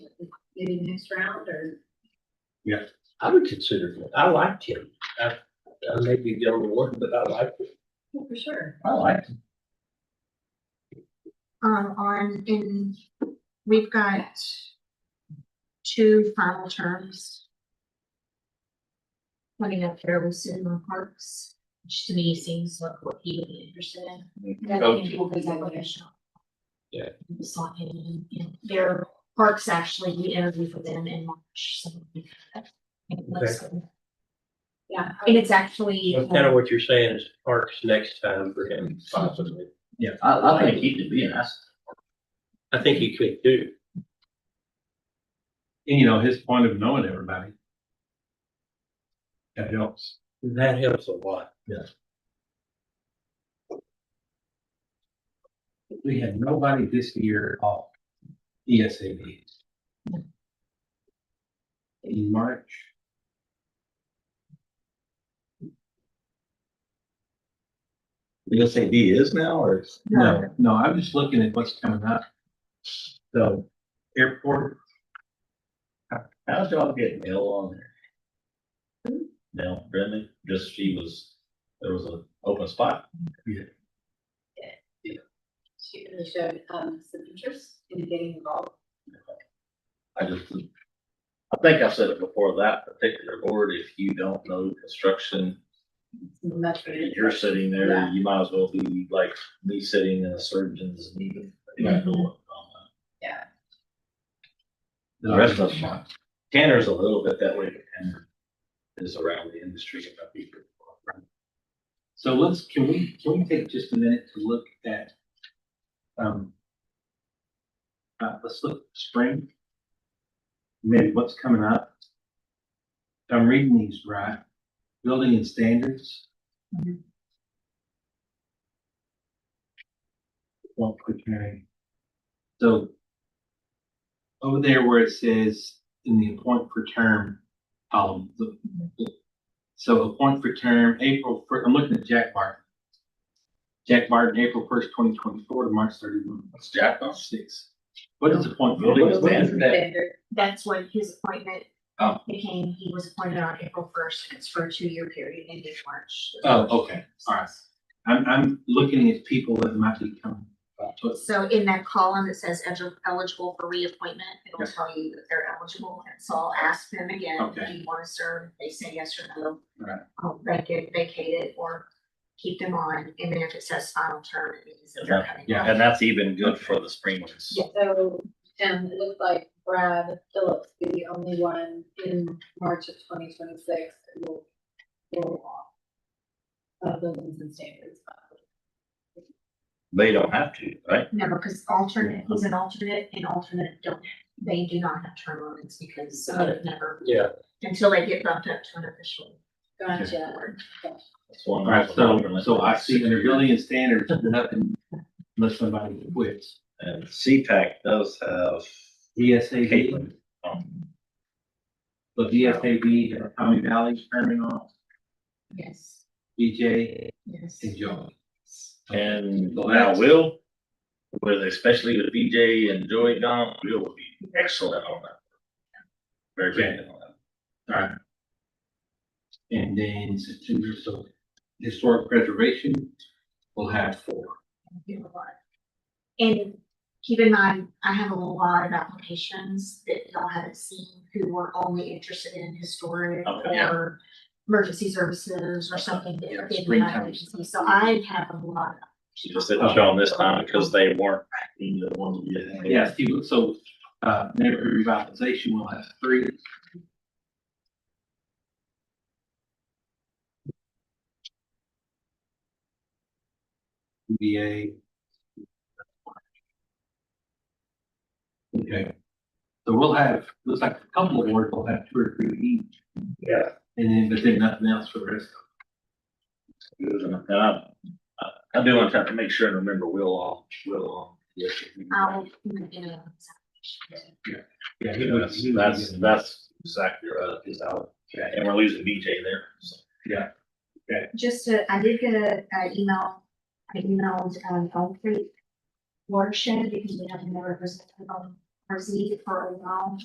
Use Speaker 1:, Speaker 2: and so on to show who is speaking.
Speaker 1: maybe next round or?
Speaker 2: I would consider, it. I liked him. I, I may be the only one, but I liked him.
Speaker 1: Well, For sure.
Speaker 2: I liked him.
Speaker 3: um, on, in, we've got two final terms. Coming up here with Cinema Parks, which to me seems like what he would be interested in. That
Speaker 2: Go
Speaker 3: can be organizational.
Speaker 2: Yeah.
Speaker 3: We saw him, in- in- their parks actually, we interviewed for them in March, so. it looks good.
Speaker 1: Yeah.
Speaker 3: And it's actually. uh,
Speaker 2: That's kind of what you're saying is parks next time for him possibly.
Speaker 4: I, I think he could be an asset.
Speaker 2: I think he could do.
Speaker 5: And you know, his point of knowing everybody. That helps.
Speaker 2: That helps a lot.
Speaker 5: We had nobody this year at all. E ESAB. In March.
Speaker 4: You gonna say he is now, or?
Speaker 5: No, no, I'm just looking at what's coming up. So airport,
Speaker 4: How's y'all getting Nell on there? Nell, Brendan, just she was, there was an open spot.
Speaker 1: She really showed, um, some interest in getting involved.
Speaker 4: I just. I think I've said it before, that particular board, if you don't know construction,
Speaker 1: Much. better.
Speaker 4: you're sitting there, you might as well be like me sitting in a surgeon's meeting. You don't know what's going on.
Speaker 1: Yeah.
Speaker 4: The rest of them, aren't. Tanner's a little bit that way, but Tanner is around the industry. and about people.
Speaker 5: so let's, can we, can we take just a minute to look at? Um. Uh, let's look at spring. Maybe what's coming up. If I'm reading these right, building and standards.
Speaker 1: Mhm.
Speaker 5: Well, preparing. So. Over there where it says in the appoint for term column, the- so appoint for term, April, fir- I'm looking at Jack Martin. Jack Martin, April first, twenty twenty-four to March thirty-one.
Speaker 4: That's Jack, huh?
Speaker 5: Six. What is the point?
Speaker 4: Building
Speaker 5: What is- what is
Speaker 4: standard.
Speaker 5: that?
Speaker 1: Standard.
Speaker 3: That's when his appointment
Speaker 5: Oh.
Speaker 3: became, he was appointed on April first, and it's for a two-year period ended March.
Speaker 5: Oh, okay, all right. I'm, I'm looking at people that might be coming. to us.
Speaker 3: So in that column that says elig- eligible for reappointment, it'll tell you that they're eligible, and so I'll ask them again, do
Speaker 5: Okay.
Speaker 3: you wanna serve? They say yes or no.
Speaker 5: Right.
Speaker 3: I'll vacate, vacate it or keep them on, and then if it says final term, it means that they're
Speaker 4: Yeah.
Speaker 3: coming.
Speaker 5: Yeah.
Speaker 4: And that's even good for the spring ones.
Speaker 1: So, um, it looks like Brad Phillips be the only one in March of twenty twenty-six that will roll off. Uh, buildings and standards.
Speaker 4: They don't have to, right?
Speaker 3: No, because alternate, he's an alternate, and alternate don't, they do not have term limits because they've never,
Speaker 2: Yeah.
Speaker 3: until they get bumped up to an official.
Speaker 1: Gotcha.
Speaker 4: That's one
Speaker 5: All right,
Speaker 4: of the
Speaker 5: so,
Speaker 4: alternate
Speaker 5: so I see under
Speaker 4: ones.
Speaker 5: building and standards, nothing unless somebody quits.
Speaker 4: And CPAC does have
Speaker 5: ESAB,
Speaker 4: Caitlin. um,
Speaker 5: but ESAB, and Tommy Valley, Terminal,
Speaker 3: Yes,
Speaker 5: BJ,
Speaker 3: yes.
Speaker 5: and Joe.
Speaker 4: And
Speaker 5: So
Speaker 4: now
Speaker 5: that's-
Speaker 4: Will, with especially with BJ and Joey Don, Will would be excellent on that. Very
Speaker 5: Okay.
Speaker 4: good on that.
Speaker 5: All right. And then September, so historic preservation will have four.
Speaker 3: do a lot. And keep in mind, I have a lot of applications that y'all haven't seen who were only interested in historic
Speaker 4: Okay, yeah.
Speaker 3: or emergency services or something
Speaker 5: Yeah,
Speaker 3: that they did
Speaker 5: springtime.
Speaker 3: not agency. So I have a lot.
Speaker 4: She just didn't show them this time because they weren't acting the ones we had.
Speaker 5: Yeah, Steve, so, uh, neighborhood revitalization will have three. UVA. Okay, so we'll have, looks like a couple of words, we'll have two or three each,
Speaker 4: Yeah.
Speaker 5: and then, but then nothing else for the rest.
Speaker 4: And I, I- I do want to have to make sure and remember Will off, Will off. Yes.
Speaker 3: I will, you know,
Speaker 5: Yeah, he would-
Speaker 4: That's,
Speaker 5: he would be
Speaker 4: that's,
Speaker 5: good.
Speaker 4: that's exactly right, is out, and we're losing BJ there, so.
Speaker 3: just, uh, I did get a, a email, I emailed, um, Elm Creek watershed because we haven't never visited, um, RZ for a while.